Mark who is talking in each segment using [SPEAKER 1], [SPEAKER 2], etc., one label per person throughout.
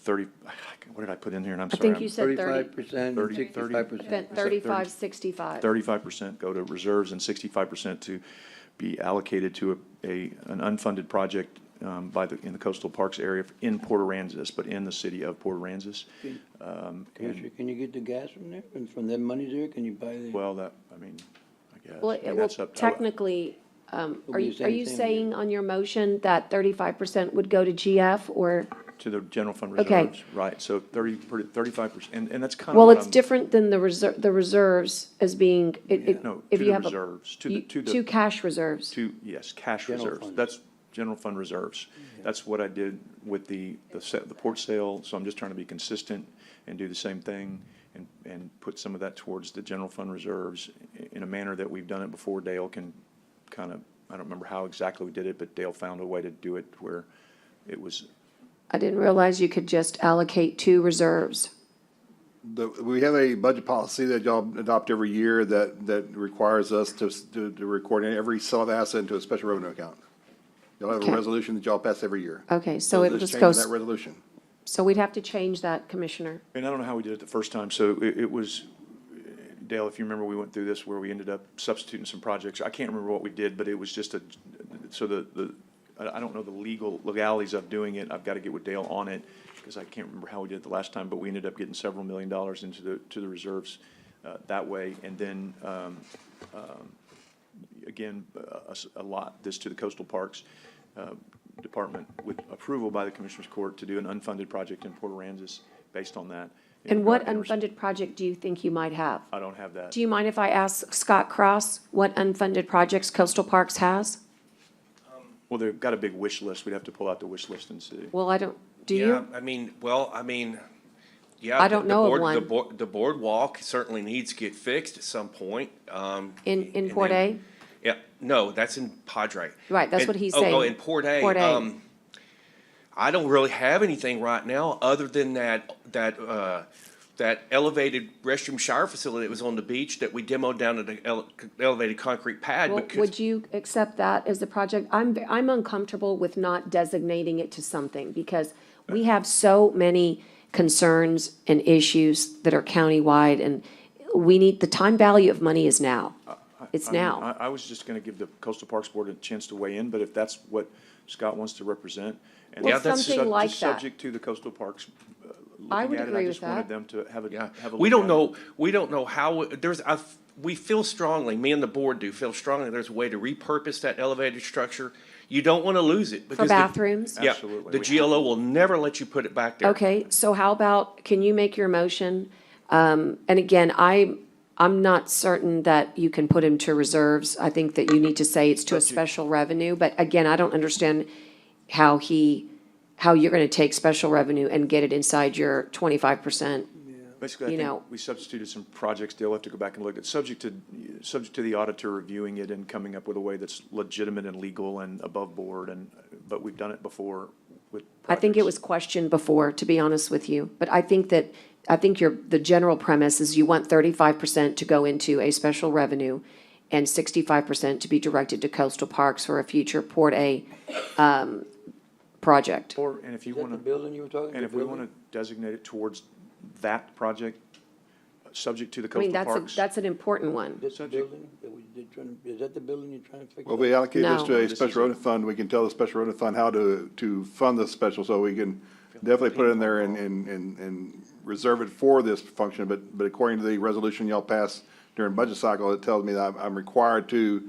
[SPEAKER 1] thirty, what did I put in here? And I'm
[SPEAKER 2] I
[SPEAKER 1] sorry.
[SPEAKER 2] think you said thirty,
[SPEAKER 3] Thirty-five percent and
[SPEAKER 1] 30,
[SPEAKER 3] sixty-five
[SPEAKER 2] then
[SPEAKER 3] percent.
[SPEAKER 2] thirty-five, sixty-five.
[SPEAKER 1] Thirty-five percent go to reserves and sixty-five percent to be allocated to a, a, an unfunded project, um, by the, in the coastal parks area in Port Aransas, but in the city of Port Aransas. Um,
[SPEAKER 3] Commissioner, can you get the gas from there, and from that money there, can you buy the?
[SPEAKER 1] well, that, I mean, I guess.
[SPEAKER 2] Well,
[SPEAKER 1] I mean,
[SPEAKER 2] it will
[SPEAKER 1] that's up to-
[SPEAKER 2] technically, um,
[SPEAKER 3] It'll
[SPEAKER 2] are
[SPEAKER 3] be
[SPEAKER 2] you,
[SPEAKER 3] the
[SPEAKER 2] are
[SPEAKER 3] same
[SPEAKER 2] you
[SPEAKER 3] thing.
[SPEAKER 2] saying on your motion that thirty-five percent would go to GF or?
[SPEAKER 1] To the general fund
[SPEAKER 2] Okay.
[SPEAKER 1] reserves, right, so thirty, thirty-five percent, and, and that's kind of.
[SPEAKER 2] Well, it's different than the reserve, the reserves as being, it, it,
[SPEAKER 1] No, to
[SPEAKER 2] if you
[SPEAKER 1] the
[SPEAKER 2] have a.
[SPEAKER 1] reserves, to the,
[SPEAKER 2] you-
[SPEAKER 1] to the.
[SPEAKER 2] Two cash reserves.
[SPEAKER 1] To, yes, cash
[SPEAKER 3] General
[SPEAKER 1] reserves.
[SPEAKER 3] fund.
[SPEAKER 1] That's general fund reserves. That's what I did with the, the set, the port sale, so I'm just trying to be consistent and do the same thing and, and put some of that towards the general fund reserves i- in a manner that we've done it before. Dale can kind of, I don't remember how exactly we did it, but Dale found a way to do it where it was,
[SPEAKER 2] I didn't realize you could just allocate two reserves.
[SPEAKER 4] The, we have a budget policy that y'all adopt every year that, that requires us to, to, to record every sale of asset into a special revenue account. Y'all have
[SPEAKER 2] Okay.
[SPEAKER 4] a resolution that y'all pass every year.
[SPEAKER 2] Okay, so it
[SPEAKER 4] this
[SPEAKER 2] just
[SPEAKER 4] changes
[SPEAKER 2] goes,
[SPEAKER 4] That resolution.
[SPEAKER 2] so we'd have to change that, Commissioner.
[SPEAKER 1] and I don't know how we did it the first time, so it, it was, Dale, if you remember, we went through this where we ended up substituting some projects. I can't remember what we did, but it was just a, so the, the, I, I don't know the legal legalities of doing it. I've got to get with Dale on it because I can't remember how we did it the last time, but we ended up getting several million dollars into the, to the reserves uh, that way. And then, um, um, again, a, s- a lot, this to the coastal parks uh, department with approval by the Commissioners Court to do an unfunded project in Port Aransas based on that.
[SPEAKER 2] And what unfunded project do you think you might have?
[SPEAKER 1] I don't have that.
[SPEAKER 2] Do you mind if I ask Scott Cross what unfunded projects Coastal Parks has?
[SPEAKER 1] Well, they've got a big wish list. We'd have to pull out the wish list and see.
[SPEAKER 2] Well, I don't, do
[SPEAKER 5] Yeah,
[SPEAKER 2] you?
[SPEAKER 5] I mean, well, I mean, yeah.
[SPEAKER 2] I don't
[SPEAKER 5] the
[SPEAKER 2] know of
[SPEAKER 5] board-
[SPEAKER 2] one.
[SPEAKER 5] The board, the boardwalk certainly needs to get fixed at some point, um.
[SPEAKER 2] In- in
[SPEAKER 5] and
[SPEAKER 2] Port
[SPEAKER 5] then- Yeah, no, that's in Padre.
[SPEAKER 2] Right, that's
[SPEAKER 5] And-
[SPEAKER 2] what he's
[SPEAKER 5] oh, Oh,
[SPEAKER 2] saying.
[SPEAKER 5] in Port A.
[SPEAKER 2] Port A.
[SPEAKER 5] Um, I don't really have anything right now, other than that, that, uh, that elevated restroom shower facility that was on the beach that we demoed down at the ele- elevated concrete pad.
[SPEAKER 2] Well,
[SPEAKER 5] because-
[SPEAKER 2] Would you accept that as a project? I'm, I'm uncomfortable with not designating it to something because we have so many concerns and issues that are countywide and we need, the time value of money is now. It's
[SPEAKER 1] I mean,
[SPEAKER 2] now.
[SPEAKER 1] I, I was just gonna give the Coastal Parks Board a chance to weigh in, but if that's what Scott wants to represent. and
[SPEAKER 5] Well,
[SPEAKER 1] that's just
[SPEAKER 2] something
[SPEAKER 1] sub-
[SPEAKER 2] like
[SPEAKER 1] just
[SPEAKER 2] that.
[SPEAKER 1] Subject to the Coastal Parks uh,
[SPEAKER 2] I would
[SPEAKER 1] looking at it,
[SPEAKER 2] agree
[SPEAKER 1] I
[SPEAKER 2] with
[SPEAKER 1] just wanted
[SPEAKER 2] that.
[SPEAKER 1] them to have a,
[SPEAKER 5] Yeah,
[SPEAKER 1] have a.
[SPEAKER 5] we
[SPEAKER 1] look
[SPEAKER 5] don't
[SPEAKER 1] at it.
[SPEAKER 5] know, we don't know how, there's, I, we feel strongly, me and the board do feel strongly, there's a way to repurpose that elevated structure. You don't want to lose it. because the-
[SPEAKER 2] bathrooms?
[SPEAKER 5] Yeah,
[SPEAKER 1] Absolutely,
[SPEAKER 5] the
[SPEAKER 1] we have
[SPEAKER 5] GLO will never let you put it back there.
[SPEAKER 2] Okay, so how about, can you make your motion? Um, and again, I, I'm not certain that you can put him to reserves. I think that you need to say it's to a special revenue, but again, I don't understand how he, how you're gonna take special revenue and get it inside your twenty-five percent.
[SPEAKER 1] Basically,
[SPEAKER 2] you
[SPEAKER 1] I
[SPEAKER 2] know.
[SPEAKER 1] think we substituted some projects. They'll have to go back and look at, subject to, subject to the auditor reviewing it and coming up with a way that's legitimate and legal and above board and, but we've done it before with.
[SPEAKER 2] I think it
[SPEAKER 1] projects.
[SPEAKER 2] was questioned before, to be honest with you, but I think that, I think your, the general premise is you want thirty-five percent to go into a special revenue and sixty-five percent to be directed to coastal parks for a future Port A, um, project.
[SPEAKER 1] Or, and if you
[SPEAKER 3] Is that
[SPEAKER 1] wanna.
[SPEAKER 3] the building you were talking about?
[SPEAKER 1] And if we want to designate it towards that project, uh, subject to the
[SPEAKER 2] I
[SPEAKER 1] coastal
[SPEAKER 2] mean, that's, a-
[SPEAKER 1] parks.
[SPEAKER 2] that's an important one.
[SPEAKER 3] This the
[SPEAKER 1] subject-
[SPEAKER 3] building that we did trying, is that the building you're trying to fix?
[SPEAKER 4] Well, we allocate this
[SPEAKER 2] No.
[SPEAKER 4] to a
[SPEAKER 1] This is-
[SPEAKER 4] special revenue fund. We can tell the special revenue fund how to, to fund this special, so we can definitely put it in there and, and, and, and reserve it for this function, but, but according to the resolution y'all passed during budget cycle, it tells me that I'm, I'm required to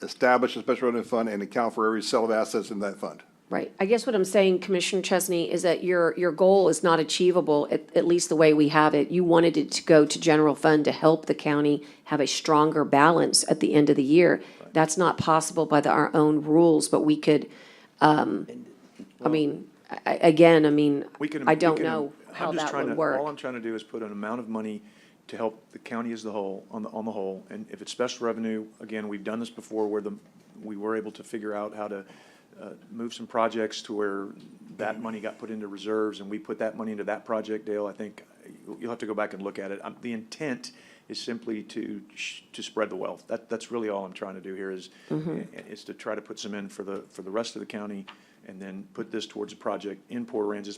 [SPEAKER 4] establish a special revenue fund and account for every sale of assets in that fund.
[SPEAKER 2] Right. I guess what I'm saying, Commissioner Chesney, is that your, your goal is not achievable, at, at least the way we have it. You wanted it to go to general fund to help the county have a stronger balance at the end of the year. That's not possible by the, our own rules, but we could, um, I mean, I, I- again, I mean,
[SPEAKER 1] We can-
[SPEAKER 2] I
[SPEAKER 1] we
[SPEAKER 2] don't
[SPEAKER 1] can-
[SPEAKER 2] know
[SPEAKER 1] I'm
[SPEAKER 2] how
[SPEAKER 1] just
[SPEAKER 2] that
[SPEAKER 1] trying
[SPEAKER 2] would
[SPEAKER 1] to- All I'm
[SPEAKER 2] work.
[SPEAKER 1] trying to do is put an amount of money to help the county as the whole, on the, on the whole. And if it's special revenue, again, we've done this before where the, we were able to figure out how to uh, move some projects to where that money got put into reserves and we put that money into that project, Dale. I think you'll- you'll have to go back and look at it. Um, The intent is simply to, sh- to spread the wealth. That, that's really all I'm trying to do here is,
[SPEAKER 2] Mm-hmm.
[SPEAKER 1] is to try to put some in for the, for the rest of the county and then put this towards a project in Port Aransas,